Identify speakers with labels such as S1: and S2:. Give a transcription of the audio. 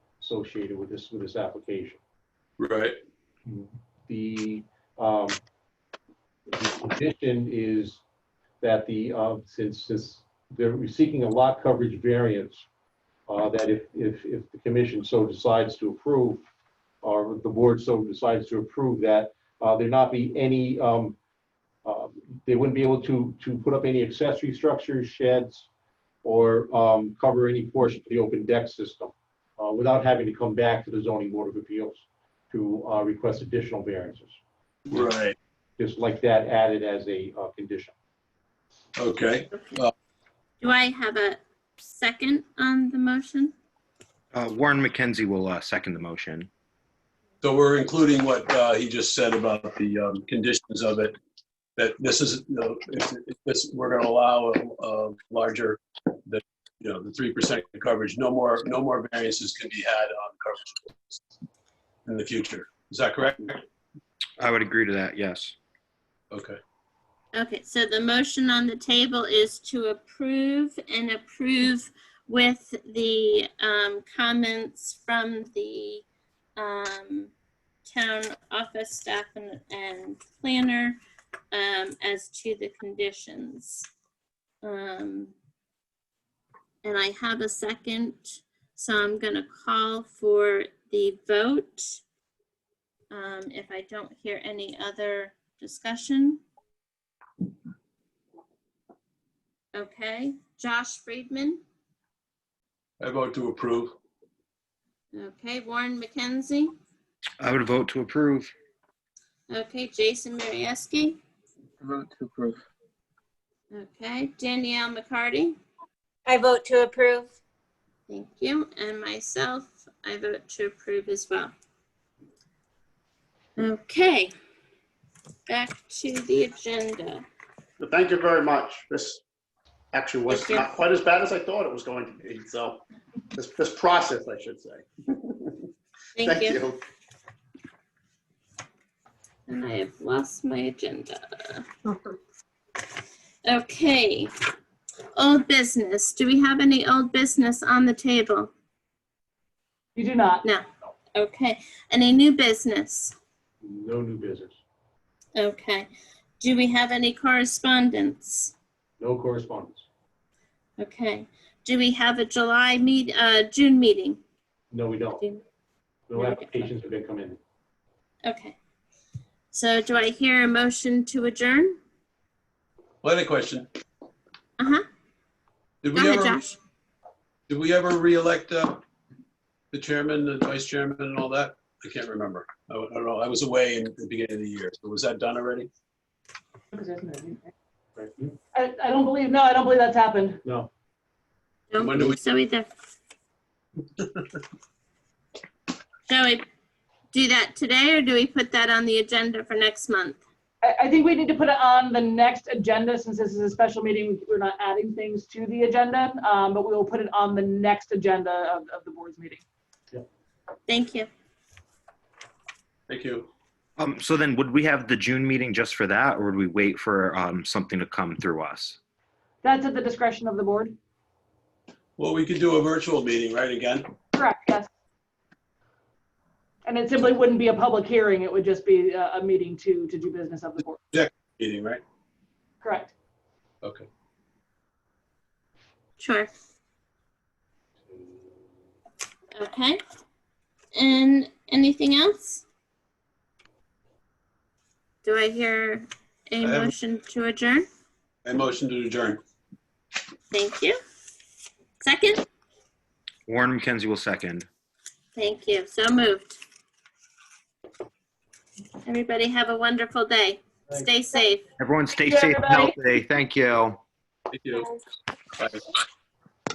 S1: associated with this, with this application.
S2: Right,
S1: The, um, the condition is that the, uh, since, since they're seeking a lot coverage variance, uh, that if, if, if the commission so decides to approve, or the board so decides to approve that, uh, there not be any, um, uh, they wouldn't be able to, to put up any accessory structures, sheds, or, um, cover any portion of the open deck system, uh, without having to come back to the zoning board of appeals to, uh, request additional variances.
S2: right,
S1: Just like that added as a, uh, condition.
S2: okay.
S3: Do I have a second on the motion?
S4: Uh, Warren McKenzie will uh, second the motion.
S2: So we're including what uh, he just said about the um, conditions of it, that this is, you know, if if this, we're going to allow a- a larger, the, you know, the 3% coverage, no more, no more variances can be had on coverage in the future. Is that correct?
S4: I would agree to that, yes.
S2: Okay,
S3: Okay, so the motion on the table is to approve and approve with the um, comments from the um, town office staff and, and planner um, as to the conditions. Um, And I have a second, so I'm gonna call for the vote. Um, If I don't hear any other discussion. Okay, Josh Friedman.
S2: I vote to approve.
S3: Okay, Warren McKenzie.
S4: I would vote to approve.
S3: Okay, Jason Marieski.
S5: Vote to approve.
S3: Okay, Danielle McCarty.
S6: I vote to approve.
S3: Thank you. And myself, I vote to approve as well. Okay, back to the agenda.
S7: But Thank you very much. This actually was
S3: Thank you.
S7: not quite as bad as I thought it was going to be, so this, this process, I should say.
S3: Thank you. And I have lost my agenda. Okay, old business. Do we have any old business on the table?
S8: We do not.
S3: No. Okay. Any new business?
S1: No new business,
S3: Okay. Do we have any correspondence?
S1: no correspondence,
S3: Okay. Do we have a July meet, uh, June meeting?
S1: no, we don't. No applications have been come in.
S3: Okay. So do I hear a motion to adjourn?
S2: Well, I had a question.
S3: Uh-huh.
S2: Did
S3: Go
S2: we
S3: ahead,
S2: ever,
S3: Josh.
S2: did we ever reelect uh, the chairman, the vice chairman and all that? I can't remember. I I don't know. I was away in the beginning of the year. So Was that done already?
S8: because there's no need, right?
S1: Right.
S8: I, I don't believe, no, I don't believe that's happened.
S1: No,
S3: Don't
S2: When do we-
S3: believe so either. Shall we do that today or do we put that on the agenda for next month?
S8: I, I think we need to put it on the next agenda since this is a special meeting. We're not adding things to the agenda, um, but we will put it on the next agenda of, of the board's meeting.
S3: Thank you.
S2: Thank you.
S4: Um, so then, would we have the June meeting just for that, or would we wait for um, something to come through us?
S8: That's at the discretion of the board.
S2: Well, we could do a virtual meeting, right, again?
S8: Correct, yes. And it simply wouldn't be a public hearing. It would just be a, a meeting to, to do business of the board.
S2: Meeting, right?
S8: Correct.
S2: Okay.
S3: Sure. Okay. And anything else? Do I hear a
S2: I have-
S3: motion to adjourn?
S2: I motion to adjourn.
S3: Thank you. Second?
S4: Warren McKenzie will second.
S3: Thank you. So moved. Everybody have a wonderful day. Stay safe.
S4: Everyone, stay
S8: Thank you,
S4: safe and
S8: everybody.
S4: healthy. Thank you.
S2: Thank you. Bye.